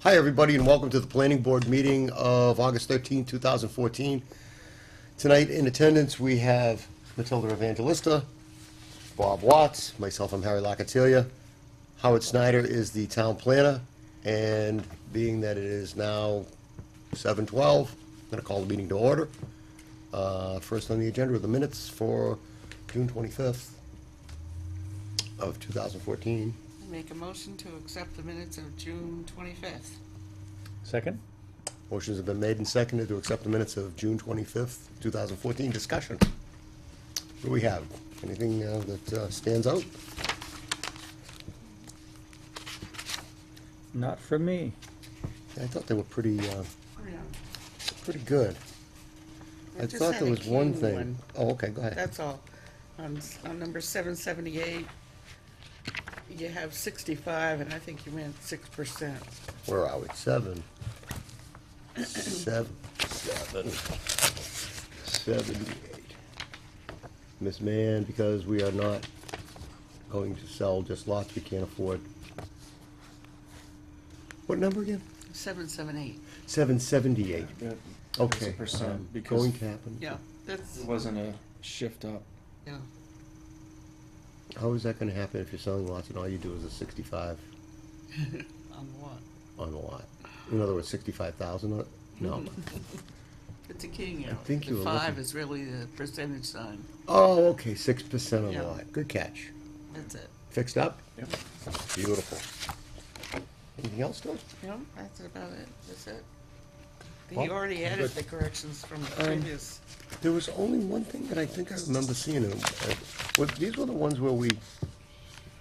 Hi, everybody, and welcome to the Planning Board meeting of August 13, 2014. Tonight in attendance, we have Matilda Evangelista, Bob Watts, myself, I'm Harry Locatilia. Howard Snyder is the town planner, and being that it is now 7:12, I'm going to call the meeting to order. Uh, First on the agenda are the minutes for June 25th of 2014. Make a motion to accept the minutes of June twenty-fifth. Second? Motions have been made and seconded to accept the minutes of June 25th, 2014. Discussion. What do we have? Anything uh, that uh, stands out? Not for me. I thought they were pretty, uh, pretty good. I thought there was one thing. Oh, okay, go ahead. That's all. On, s- on number seven seventy-eight, you have sixty-five, and I think you meant six percent. Where are we? Seven. Seven. Seven. Seventy-eight. Miss Mann, because we are not going to sell just lots we can't afford. What number again? Seven seven eight, Seven seventy-eight. That Okay. Um, a percent, because- Going to happen. yeah, that's, wasn't a shift up. yeah. How is that gonna happen if you're selling lots and all you do is a sixty-five On what? on the lot? In other words, sixty-five thousand on it? No. It's a king arrow. think you The were five looking- is really the percentage sign. Oh, okay, six percent on the Yeah. lot. Good catch. That's it. Fixed up? Yep. Beautiful. Anything else, Tom? Yeah, that's about it. That's it. Well, He already added good. the corrections from the previous. There was only one thing that I think I remember seeing. and, uh, was- These were the ones where we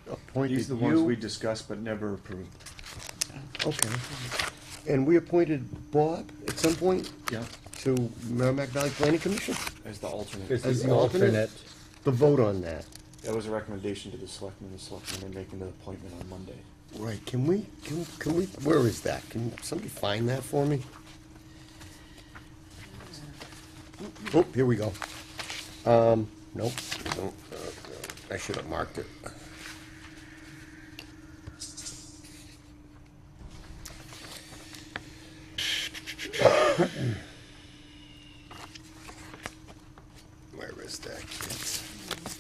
appointed you. These are the ones we discussed but never approved. Okay. And we appointed Bob at some point Yeah. to Merrimack Valley Planning Commission? As the alternate. As the alternate? The vote on that. That was a recommendation to the selectmen, the selectmen are making the appointment on Monday. Right, can we, can, can we, where is that? Can somebody find that for me? Oh, here we go. Um, nope, nope, uh, I should have marked it. Where is that?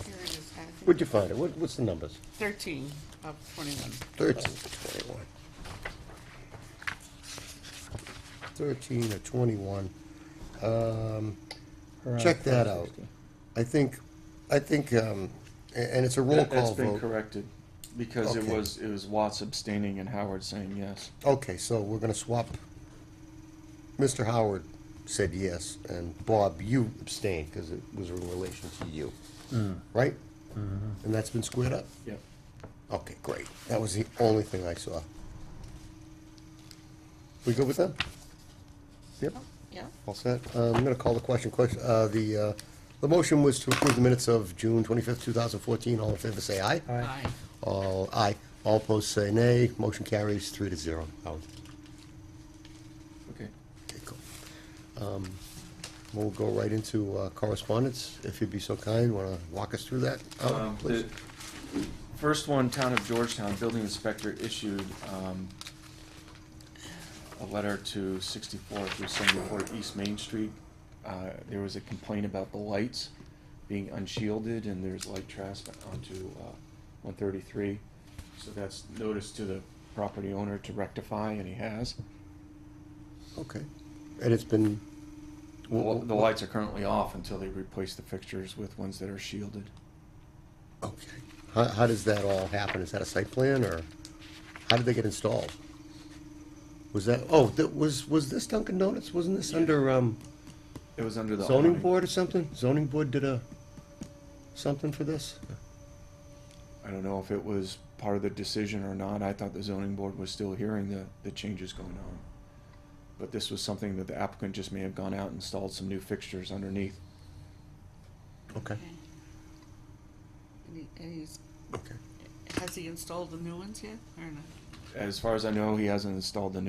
Here it is. I think Where'd you find it? What, what's the numbers? Thirteen of twenty-one. Thirteen to twenty-one. Thirteen to twenty-one. Um, check that out. I think, I think, um, a- and it's a roll That- That's call been vote. corrected, because it Okay. was, it was Watts abstaining and Howard saying yes. Okay, so we're gonna swap. Mr. Howard said yes, and Bob, you abstained, because it was in relation to you, right? And that's been squared up? Yep. Okay, great. That was the only thing I saw. We good with that? Yep. Yeah. All set. Uh, I'm going to call the question. Question, uh, the, uh, the motion was to approve the minutes of June 25th, 2014. All in favor, say aye. Aye. All, aye. All opposed, say nay. Motion carries three to zero. Howard. Okay. Okay, cool. Um, We'll go right into uh, correspondence, if you'd be so kind. Want to walk us through that, Howard, Um, the Oh, please? First one, Town of Georgetown, building inspector issued, um, a letter to sixty-four through seventy-four East Main Street. Uh, there was a complaint about the lights being unshielded and there's light trespass onto, uh, one thirty-three. So that's notice to the property owner to rectify, and he has. Okay. And it's been, Well, the lights are currently off until they replace the fixtures with ones that are shielded. okay. How, how does that all happen? Is that a site plan, or how did they get installed? Was that, oh, that was, was this Dunkin' Donuts? Wasn't this under, um, It was under the. zoning awning. board or something? Zoning board did a, something for this? I don't know if it was part of the decision or not. I thought the zoning board was still hearing the, the changes going on. But this was something that the applicant just may have gone out and installed some new fixtures underneath. Okay, And he- and he's, okay. has he installed the new ones yet, or not? As far as I know, he hasn't installed the new